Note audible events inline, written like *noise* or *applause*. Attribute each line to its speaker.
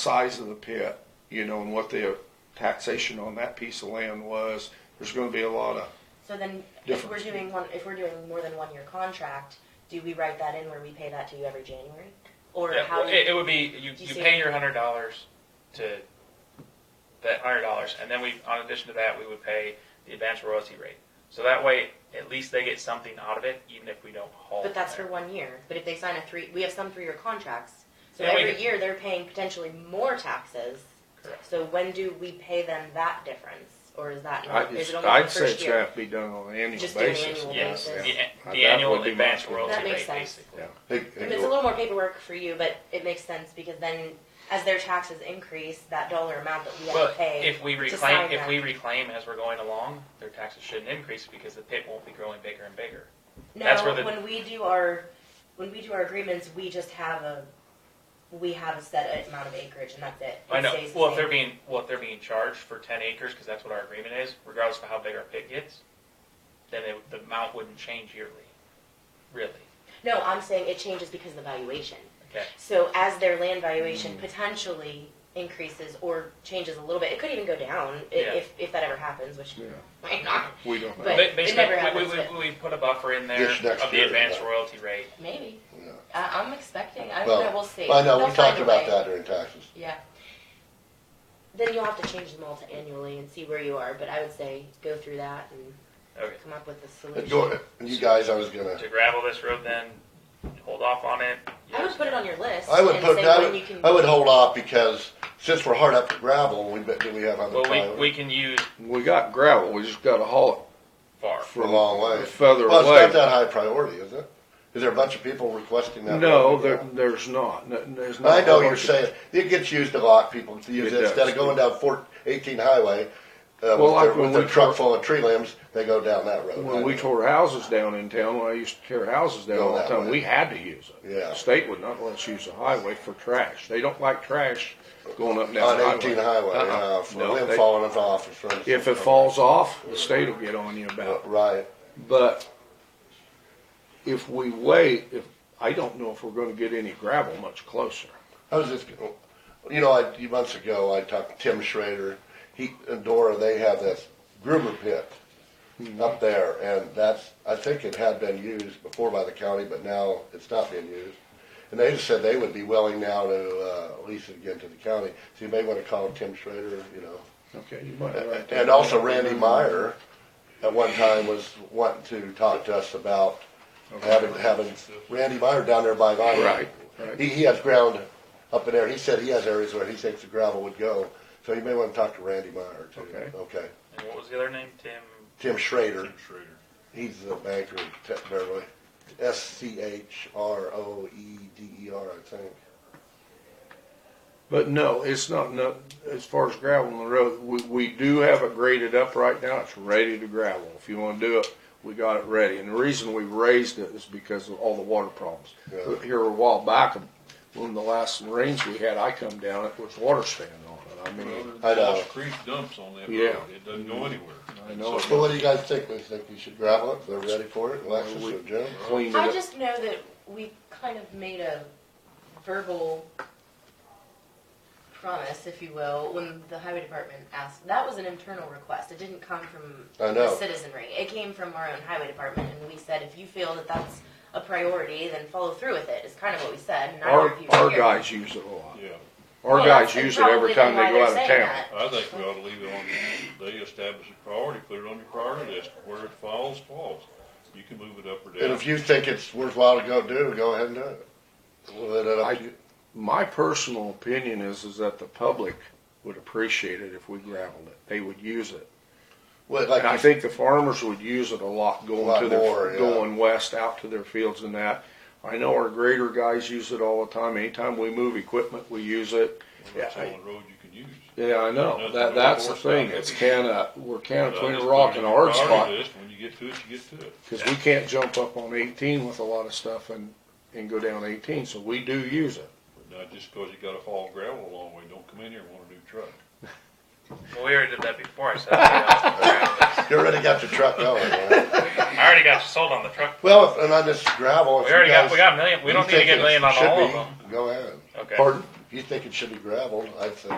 Speaker 1: size of the pit, you know, and what the taxation on that piece of land was. There's gonna be a lot of,
Speaker 2: So then, if we're
Speaker 1: Difference.
Speaker 2: doing one, if we're doing more than one year contract, do we write that in where we pay that to you every January? Or
Speaker 3: Yeah,
Speaker 2: how,
Speaker 3: well, it, it would be you,
Speaker 2: Do you
Speaker 3: you
Speaker 2: see
Speaker 3: pay
Speaker 2: it?
Speaker 3: your hundred dollars to that hundred dollars, and then we, on addition to that, we would pay the advance royalty rate. So that way, at least they get something out of it, even if we don't haul.
Speaker 2: but that's
Speaker 3: from
Speaker 2: for one year, but if they sign a three, we have some three-year contracts. So
Speaker 3: Yeah, we
Speaker 2: every
Speaker 3: could-
Speaker 2: year, they're paying potentially more taxes.
Speaker 3: there. Correct.
Speaker 2: So when do we pay them that difference? Or is that
Speaker 1: I
Speaker 2: not, is
Speaker 1: just,
Speaker 2: it only the
Speaker 1: I'd say it
Speaker 2: first
Speaker 1: should
Speaker 2: year?
Speaker 1: have to be done on an annual
Speaker 2: Just do an
Speaker 1: basis.
Speaker 2: annual
Speaker 3: Yes,
Speaker 2: basis.
Speaker 3: the,
Speaker 1: Yeah.
Speaker 3: the
Speaker 1: That
Speaker 3: annual
Speaker 1: would be my
Speaker 3: advance
Speaker 1: opinion.
Speaker 3: royalty
Speaker 2: That makes
Speaker 3: rate,
Speaker 2: sense.
Speaker 3: basically.
Speaker 1: Yeah. They-
Speaker 2: I
Speaker 1: they
Speaker 2: mean, it's a
Speaker 1: go-
Speaker 2: little more paperwork for you, but it makes sense because then as their taxes increase, that dollar amount that we have to
Speaker 3: But
Speaker 2: pay.
Speaker 3: if we
Speaker 2: sign
Speaker 3: reclaim,
Speaker 2: that.
Speaker 3: if we reclaim as we're going along, their taxes shouldn't increase because the pit won't be growing bigger and bigger. That's
Speaker 2: No,
Speaker 3: where the-
Speaker 2: when we do our, when we do our agreements, we just have a, we have a set amount of acreage and that's it.
Speaker 3: I
Speaker 2: It
Speaker 3: know.
Speaker 2: stays the
Speaker 3: Well, if
Speaker 2: same.
Speaker 3: they're being, well, if they're being charged for ten acres, because that's what our agreement is, regardless of how big our pit gets, then it- the amount wouldn't change yearly, really.
Speaker 2: No, I'm saying it changes because of the valuation.
Speaker 3: Okay.
Speaker 2: So as their land valuation potentially increases or changes a little bit, it could even go down i-
Speaker 3: Yeah.
Speaker 2: if, if that ever happens, which
Speaker 1: Yeah,
Speaker 2: might not,
Speaker 1: we don't
Speaker 2: But
Speaker 1: know.
Speaker 3: Ba-
Speaker 2: it
Speaker 3: Basically,
Speaker 2: never
Speaker 3: we- we,
Speaker 2: happens,
Speaker 3: we,
Speaker 2: but-
Speaker 3: we, put a buffer in there
Speaker 4: This next
Speaker 3: of the
Speaker 4: year,
Speaker 3: advanced
Speaker 4: right.
Speaker 3: royalty rate.
Speaker 2: maybe.
Speaker 4: Yeah.
Speaker 2: I, I'm expecting, I
Speaker 4: Well,
Speaker 2: don't know, we'll see.
Speaker 4: I
Speaker 2: They'll
Speaker 4: know, we
Speaker 2: find
Speaker 4: talked
Speaker 2: a
Speaker 4: about
Speaker 2: way.
Speaker 4: that during taxes.
Speaker 2: Yeah. Then you'll have to change them all to annually and see where you are, but I would say go through that and
Speaker 3: Okay.
Speaker 2: come up with a solution.
Speaker 4: And you- You guys, I was gonna,
Speaker 3: To gravel this road then, hold off on it.
Speaker 2: I would put it on your list.
Speaker 4: I would
Speaker 2: and
Speaker 4: put,
Speaker 2: say
Speaker 4: I
Speaker 2: when you
Speaker 4: would,
Speaker 2: can-
Speaker 4: I would hold off because since we're hard up for gravel, we bet, do we have other
Speaker 3: Well, we,
Speaker 4: time?
Speaker 3: we can use
Speaker 1: We got gravel, we just gotta haul
Speaker 3: far.
Speaker 1: it
Speaker 4: For a
Speaker 1: from
Speaker 4: long way.
Speaker 1: further
Speaker 4: Well, it's not
Speaker 1: away.
Speaker 4: that high priority, is it? Is there a bunch of people requesting that?
Speaker 1: No,
Speaker 4: road?
Speaker 1: there, there's not, No, there's not.
Speaker 4: I know
Speaker 1: a
Speaker 4: you're
Speaker 1: bunch of-
Speaker 4: saying, it gets used a lot, people to use
Speaker 1: It
Speaker 4: it, instead
Speaker 1: does.
Speaker 4: of going down four, eighteen highway, uh,
Speaker 1: Well,
Speaker 4: with
Speaker 1: like
Speaker 4: their,
Speaker 1: when
Speaker 4: with their
Speaker 1: we
Speaker 4: truck
Speaker 1: tore-
Speaker 4: full of tree limbs, they go down that road. I
Speaker 1: When we
Speaker 4: know.
Speaker 1: tore houses down in town, when I used to tear houses down
Speaker 4: Go
Speaker 1: all the
Speaker 4: that
Speaker 1: time,
Speaker 4: way.
Speaker 1: we had to use it.
Speaker 4: Yeah.
Speaker 1: The State would not let us use the highway for trash. They don't like trash going up and down
Speaker 4: On
Speaker 1: the highway.
Speaker 4: eighteen highway,
Speaker 1: Uh-uh.
Speaker 4: uh, for
Speaker 1: No,
Speaker 4: limb
Speaker 1: they-
Speaker 4: falling off. or something.
Speaker 1: If it falls off, the state will get on you
Speaker 4: Uh,
Speaker 1: about it.
Speaker 4: Right,
Speaker 1: But if we wait, if, I don't know if we're gonna get any gravel much closer.
Speaker 4: I was just, you know, I, few months ago, I talked to Tim Schrader, he, and Dora, they have this Gruber pit up there, and that's, I think it had been used before by the county, but now it's not being used. And they just said they would be willing now to, uh, lease it again to the county, so you may wanna call Tim Schrader, you know.
Speaker 1: Okay, you might. write that
Speaker 4: And also
Speaker 1: down.
Speaker 4: Randy Meyer, at one time, was wanting to talk to us about having, having Randy Meyer down there by Vine.
Speaker 1: Right, right.
Speaker 4: He, he has ground up in there, he said he has areas where he thinks the gravel would go, so you may wanna talk to Randy Meyer too.
Speaker 1: Okay.
Speaker 4: Okay,
Speaker 3: And what was the other name? Tim?
Speaker 4: Tim Schrader,
Speaker 3: Schrader.
Speaker 4: he's the banker in Te- Beverly, S C H R O E D E R, I think.
Speaker 1: But no, it's not, no, as far as gravel on the road, we, we do have it graded up right now, it's ready to gravel. If you wanna do it, we got it ready, and the reason we raised it is because of all the water problems.
Speaker 4: Yeah.
Speaker 1: Here a while back, when the last rains we had, I come down, it was water standing on it, I mean,
Speaker 4: I know.
Speaker 5: Lost Creek dumps on that road.
Speaker 1: Yeah.
Speaker 5: It doesn't go anywhere.
Speaker 1: I know.
Speaker 4: So what do you guys think, we think we should gravel it, they're ready for it, Alexis or Jim?
Speaker 1: cleaned
Speaker 2: I
Speaker 1: it up.
Speaker 2: just know that we kind of made a verbal promise, if you will, when the highway department asked. That was an internal request. It didn't come from
Speaker 4: I know.
Speaker 2: the citizenry. It came from our own highway department, and we said, if you feel that that's a priority, then follow through with it. Is kind of what we said. And I don't know
Speaker 1: Our,
Speaker 2: if you were
Speaker 1: our
Speaker 2: here.
Speaker 1: guys use it a lot,
Speaker 5: Yeah,
Speaker 1: our
Speaker 2: Well,
Speaker 1: guys
Speaker 2: that's
Speaker 1: use it every
Speaker 2: probably
Speaker 1: time they
Speaker 2: why
Speaker 1: go
Speaker 2: they're
Speaker 1: out of
Speaker 2: saying
Speaker 1: town.
Speaker 2: that.
Speaker 5: I think we ought to leave it on, they establish a priority, put it on your priority list, where it falls, falls. You can move it up or
Speaker 4: And
Speaker 5: down.
Speaker 4: if you think it's worthwhile to go do, go ahead and do it. We'll let it up to you.
Speaker 1: My personal opinion is, is that the public would appreciate it if we graveled it, they would use it.
Speaker 4: Well,
Speaker 1: And I
Speaker 4: like,
Speaker 1: think the farmers would use it a lot
Speaker 4: A
Speaker 1: going
Speaker 4: lot
Speaker 1: to their,
Speaker 4: more, yeah.
Speaker 1: going west out to their fields and that. I know our grader guys use it all the time. Anytime we move equipment, we use it.
Speaker 5: Well, That's the only road you can use.
Speaker 1: Yeah, I know. That,
Speaker 5: Nothing but
Speaker 1: that's the
Speaker 5: horse
Speaker 1: thing.
Speaker 5: power.
Speaker 1: It's kinda, we're kinda
Speaker 5: But I
Speaker 1: between a
Speaker 5: just
Speaker 1: rock
Speaker 5: put it
Speaker 1: and a
Speaker 5: on your
Speaker 1: hard
Speaker 5: priority
Speaker 1: spot.
Speaker 5: list. When you get to it, you get to it.
Speaker 1: Cause we can't jump up on eighteen with a lot of stuff and, and go down eighteen, so we do use it.
Speaker 5: Now, just because you gotta haul gravel a long way, don't come in here and want a new truck.
Speaker 3: Well, we already did that before, I said.
Speaker 4: *laughs*
Speaker 3: I
Speaker 4: you already got your truck going, right?
Speaker 3: already got you sold on the truck.
Speaker 4: Well, if- and on this gravel, if
Speaker 3: We
Speaker 4: you
Speaker 3: already got,
Speaker 4: guys.
Speaker 3: we got a million, we
Speaker 4: you
Speaker 3: don't need to
Speaker 4: think
Speaker 3: get a
Speaker 4: it
Speaker 3: million on
Speaker 4: should
Speaker 3: all
Speaker 4: be,
Speaker 3: of them.
Speaker 4: Go ahead.
Speaker 3: Okay.
Speaker 1: Pardon?
Speaker 4: If you think it should be gravelled, I think